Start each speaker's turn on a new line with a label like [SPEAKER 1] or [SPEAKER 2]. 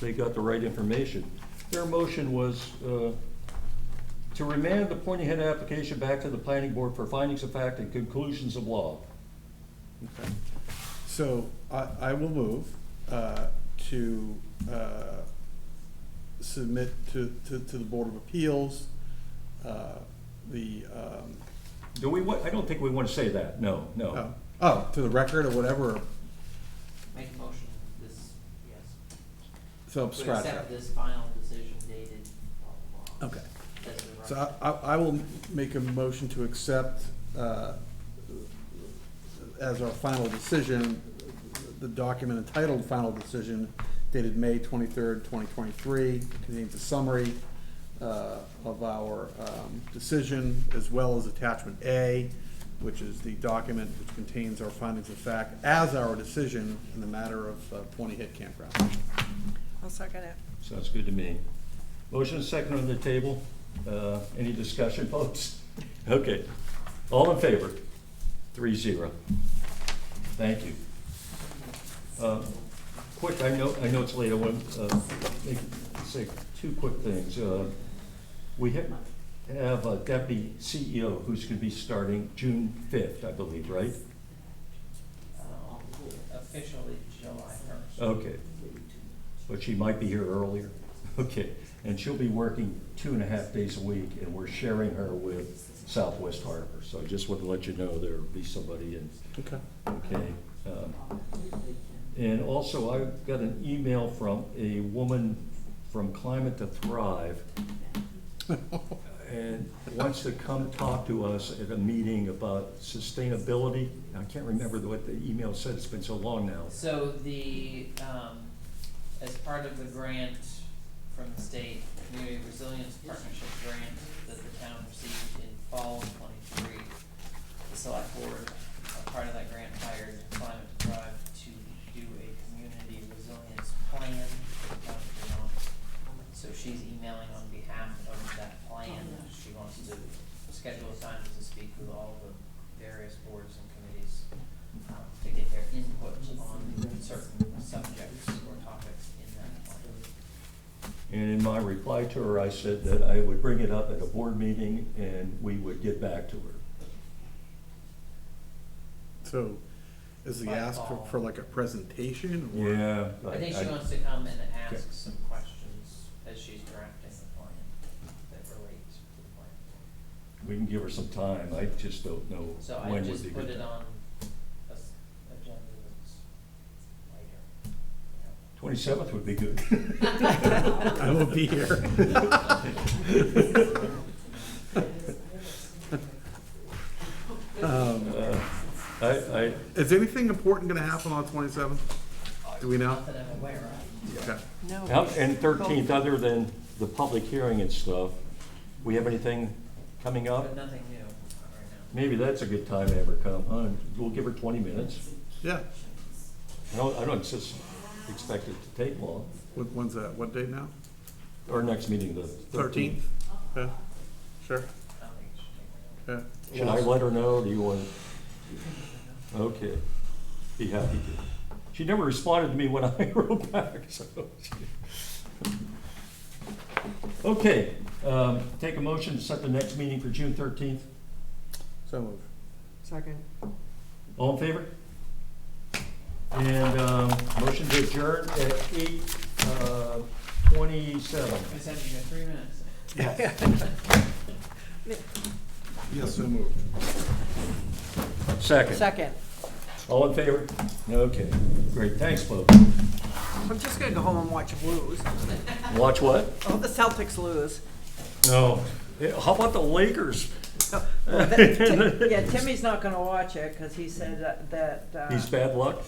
[SPEAKER 1] they got the right information. Their motion was uh, to remand the Pointy Head application back to the planning board for findings of fact and conclusions of law.
[SPEAKER 2] Okay. So I, I will move uh, to uh, submit to, to, to the Board of Appeals, uh, the, um,
[SPEAKER 1] Do we, wa- I don't think we want to say that, no,
[SPEAKER 2] oh,
[SPEAKER 1] no.
[SPEAKER 2] oh, to the record or whatever,
[SPEAKER 3] Make a motion, this, yes.
[SPEAKER 2] so
[SPEAKER 3] To
[SPEAKER 2] scratch
[SPEAKER 3] accept
[SPEAKER 2] that.
[SPEAKER 3] this final decision dated blah, blah, blah.
[SPEAKER 2] Okay.
[SPEAKER 3] That's the
[SPEAKER 2] So
[SPEAKER 3] right-
[SPEAKER 2] I- I, I will make a motion to accept uh, as our final decision, the document entitled Final Decision dated May twenty-third, twenty twenty-three, contains a summary uh, of our um, decision as well as attachment A, which is the document which contains our findings of fact as our decision in the matter of uh, Pointy Head Campground.
[SPEAKER 4] I'll second it.
[SPEAKER 1] Sounds good to me. Motion and second on the table. Uh, Any discussion, folks? Okay. All in favor? Three zero. Thank you. Uh, Quick, I know, I know it's late, I want to say two quick things. Uh, We have have a deputy CEO who's going to be starting June 5th, I believe, right?
[SPEAKER 3] Uh, Officially July first.
[SPEAKER 1] Okay. but she might be here earlier. Okay, and she'll be working two and a half days a week, and we're sharing her with Southwest Harbor. So I just wanted to let you know there'll be somebody in,
[SPEAKER 2] Okay.
[SPEAKER 1] okay? Um, And also, I got an email from a woman from Climate to Thrive, and wants to come talk to us at a meeting about sustainability. I can't remember what the email said, it's been so long now.
[SPEAKER 3] So the, um, as part of the grant from the state, Community Resilience Partnership grant that the town received in fall of twenty-three, the select board, a part of that grant hired Climate to Thrive to do a community resilience plan for the town of Vermont. So she's emailing on behalf of that plan, she wants to schedule a time to speak with all the various boards and committees um, to get their input on certain subjects or topics in that plan.
[SPEAKER 1] And in my reply to her, I said that I would bring it up at a board meeting and we would get back to her.
[SPEAKER 2] So is the ask for- for like a presentation or?
[SPEAKER 3] I think she wants to come and ask some questions as she's drafting the plan that relates to the plan.
[SPEAKER 1] We can give her some time, I just don't know
[SPEAKER 3] So I
[SPEAKER 1] when would be
[SPEAKER 3] just put
[SPEAKER 1] good.
[SPEAKER 3] it
[SPEAKER 1] time.
[SPEAKER 3] on a s- agenda that's later.
[SPEAKER 1] Twenty-seventh would be good.
[SPEAKER 2] I will be here. Um,
[SPEAKER 1] Uh, I, I,
[SPEAKER 2] Is anything important gonna happen on twenty-seventh? Do we know?
[SPEAKER 3] Not that I'm aware of.
[SPEAKER 2] Okay.
[SPEAKER 4] No.
[SPEAKER 1] how- and thirteenth, other than the public hearing and stuff, we have anything coming
[SPEAKER 3] But
[SPEAKER 1] up?
[SPEAKER 3] nothing new right
[SPEAKER 1] Maybe that's a good time to have her come, huh? We'll give her twenty minutes.
[SPEAKER 2] Yeah.
[SPEAKER 1] I don't, I don't just expect it to take long.
[SPEAKER 2] What, when's that? What date now?
[SPEAKER 1] Our next meeting, the thirteenth.
[SPEAKER 2] Yeah. Sure.
[SPEAKER 3] now. I don't think it should take very long.
[SPEAKER 2] Yeah.
[SPEAKER 1] Should I let her know? Do you want? Okay, be happy to. She never responded to me when I wrote back, so. she- Okay, um, take a motion to set the next meeting for June thirteenth.
[SPEAKER 2] So moved.
[SPEAKER 4] Second.
[SPEAKER 1] All in favor? And, um, motion to adjourn at eight, uh, twenty-seven.
[SPEAKER 3] I said you got three minutes.
[SPEAKER 2] Yes, so moved.
[SPEAKER 1] Second.
[SPEAKER 4] Second.
[SPEAKER 1] All in favor? Okay, great, thanks, folks.
[SPEAKER 4] I'm just gonna go home and watch lose.
[SPEAKER 1] Watch what?
[SPEAKER 4] Oh, the Celtics lose.
[SPEAKER 1] No. Yeah, How about the Lakers?
[SPEAKER 4] Yeah, Timmy's not gonna watch it, cause he said that, that. uh,
[SPEAKER 1] He's bad luck?